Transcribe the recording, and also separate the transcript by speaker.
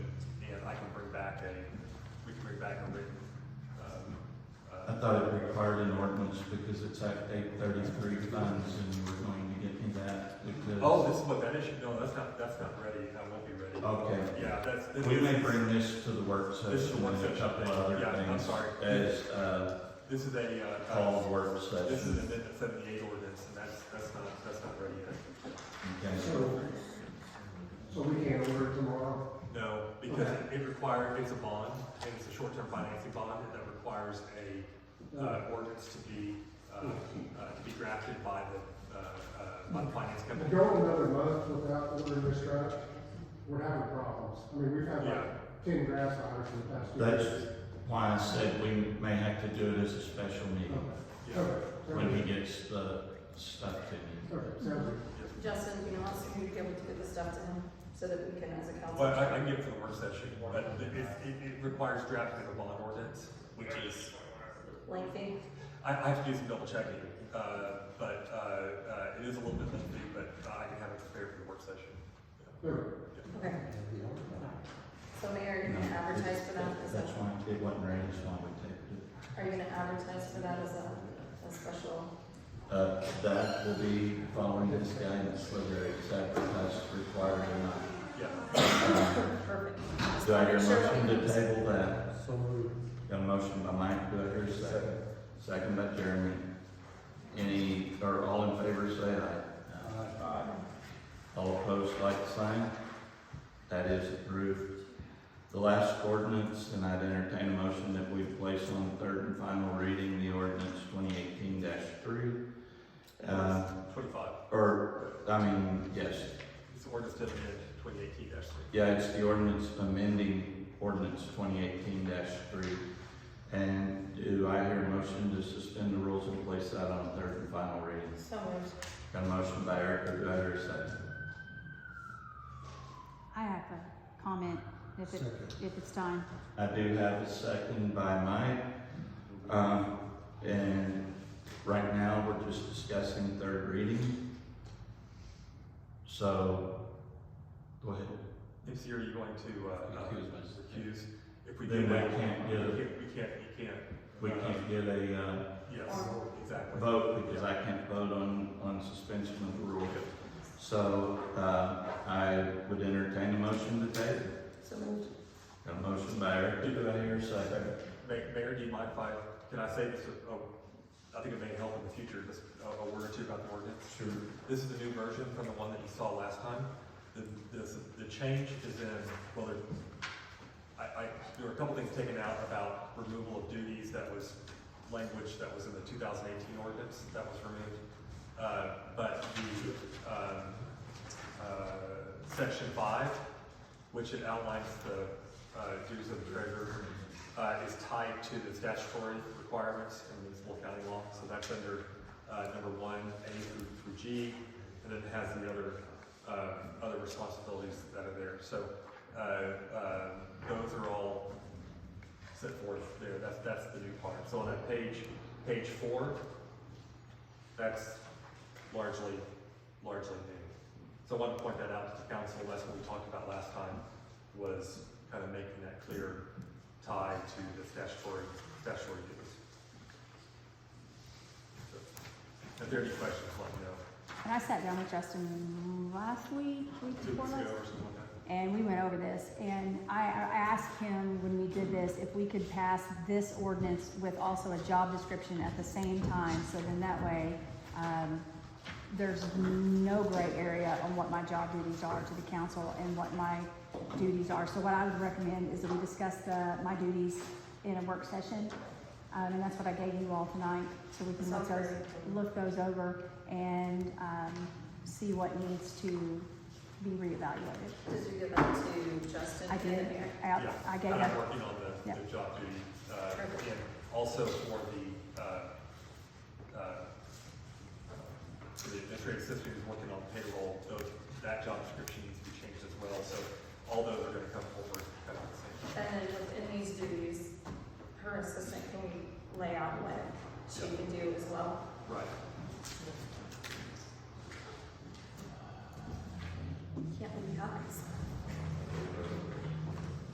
Speaker 1: back on written. um,
Speaker 2: I
Speaker 1: uh,
Speaker 2: thought it required an ordinance because it's Act eight thirty-three funds and you were going to get me that because.
Speaker 1: Oh, this is what that issue, no, that's not, that's not ready, that won't be ready.
Speaker 2: Okay.
Speaker 1: Yeah, that's. this
Speaker 2: We
Speaker 1: is-
Speaker 2: may bring this to the work
Speaker 1: This is a
Speaker 2: session
Speaker 1: work
Speaker 2: and a
Speaker 1: session
Speaker 2: couple
Speaker 1: thing.
Speaker 2: other
Speaker 1: Yeah, I'm
Speaker 2: things
Speaker 1: sorry.
Speaker 2: as, uh,
Speaker 1: This is a, uh, uh,
Speaker 2: called work
Speaker 1: this is an
Speaker 2: session.
Speaker 1: amendment seventy-eight ordinance, and that's, that's not, that's not ready yet.
Speaker 2: Okay.
Speaker 3: So, so we can't order tomorrow?
Speaker 1: No, because it- it requires, it's a bond, and it's a short-term financing bond, and that requires a, uh, ordinance to be, uh, uh, to be drafted by the, uh, uh, by the finance
Speaker 3: If we
Speaker 1: company.
Speaker 3: go another month without ordering this trash, we're having problems. I mean, we've had
Speaker 1: Yeah.
Speaker 3: like ten grasshoppers in the past two
Speaker 2: That's
Speaker 3: years.
Speaker 2: why I said we may have to do it as a special meeting
Speaker 1: Yeah,
Speaker 3: Okay,
Speaker 2: when he
Speaker 3: okay,
Speaker 2: gets the stuff to me.
Speaker 3: okay, sounds good.
Speaker 4: Justin, you know, as soon as you're able to get the stuff to him, so that we can, as a council.
Speaker 1: but I, I can get it for the work session, but it, it, it requires drafting of a bond ordinance, which is,
Speaker 4: Lengthy,
Speaker 1: I, I have to do some double checking, uh, but, uh, uh, it is a little bit lengthy, but uh, I can have it prepared for the work session.
Speaker 3: Good.
Speaker 4: okay. So Mayor, are you gonna advertise for that as
Speaker 2: That's
Speaker 4: a,
Speaker 2: why it wasn't ready, that's why we taped it.
Speaker 4: are you gonna advertise for that as
Speaker 5: uh,
Speaker 4: a, a special?
Speaker 2: Uh, that will be following this guidance, whether it's advertised required or not.
Speaker 1: Yeah,
Speaker 4: Perfect. Just
Speaker 2: Do I hear a
Speaker 4: make sure
Speaker 2: motion
Speaker 4: that we-
Speaker 2: to table that? So Got a motion by Mike, do I hear a second? Second by Jeremy. Any, or all in favor, say aye. Aye. All opposed, like sign. That is approved. The last ordinance, and I'd entertain a motion that we place on third and final reading, the ordinance twenty eighteen three. Uh,
Speaker 1: twenty-five,
Speaker 2: or, I mean, yes,
Speaker 1: it's ordinance to amend twenty eighteen dash three.
Speaker 2: yeah, it's the ordinance amending ordinance twenty eighteen three. And do I hear a motion to suspend the rules and place that on third and final reading?
Speaker 4: So moved.
Speaker 2: Got a motion by Erica, do I hear a second?
Speaker 5: I have a comment if it, if it's time.
Speaker 2: I do have a second by Mike. Um, and right now, we're just discussing third reading. So, go ahead.
Speaker 1: MC, are you going to, uh, uh,
Speaker 2: Recuse myself.
Speaker 1: recuse? If we
Speaker 2: Then
Speaker 1: do
Speaker 2: we
Speaker 1: that, we
Speaker 2: can't
Speaker 1: can't,
Speaker 2: get it.
Speaker 1: we can't, we can't.
Speaker 2: We
Speaker 1: uh,
Speaker 2: can't get a, uh,
Speaker 1: Yes, exactly.
Speaker 2: vote because I can't vote on, on suspension of the rule. So, uh, I would entertain a motion to table.
Speaker 4: So moved.
Speaker 2: Got a motion by Eric, do I hear a second?
Speaker 1: Ma- Mayor, do you mind if I, can I say this, uh, I think it may help in the future, just a a word or two about the ordinance?
Speaker 2: Sure.
Speaker 1: This is the new version from the one that you saw last time. The, this, the change is in, well, there, I, I, there were a couple things taken out about removal of duties that was language that was in the two thousand eighteen ordinance that was removed. Uh, but the, um, uh, section five, which it outlines the, uh, duties of the treasurer, uh, is tied to the statutory requirements in municipal county law. So that's under, uh, number one, A through, through G, and then it has the other, uh, other responsibilities that are there. So, uh, uh, those are all set forth there. That's, that's the new part. So on that page, page four, that's largely, largely new. So I wanted to point that out to the council. That's what we talked about last time, was kind of making that clear tie to the statutory, statutory duties. So, If there are any questions, let me know.
Speaker 5: And I sat down with Justin last week, week
Speaker 1: Two
Speaker 5: before
Speaker 1: weeks
Speaker 5: last,
Speaker 1: ago or something like that.
Speaker 5: and we went over this. And I, I asked him when we did this, if we could pass this ordinance with also a job description at the same time. So then that way, um, there's no gray area on what my job duties are to the council and what my duties are. So what I would recommend is that we discuss the, my duties in a work session. Um, and that's what I gave you all tonight, so we can look
Speaker 4: Sounds
Speaker 5: those,
Speaker 4: great.
Speaker 5: look those over and, um, see what needs to be reevaluated.
Speaker 4: Did you give that to Justin?
Speaker 5: I
Speaker 4: and the
Speaker 5: did,
Speaker 4: mayor?
Speaker 5: I,
Speaker 1: Yeah,
Speaker 5: I gave
Speaker 1: And I'm
Speaker 5: that,
Speaker 1: working on the,
Speaker 5: Yeah.
Speaker 1: the job duty, uh,
Speaker 4: Perfect.
Speaker 1: and also for the, uh, uh, for the administrative assistant who's working on payroll, those, that job description needs to be changed as well, so all those are gonna come forward kind of at the same time.
Speaker 4: And then within these duties, her assistant can lay out what she can do as well.
Speaker 1: Right.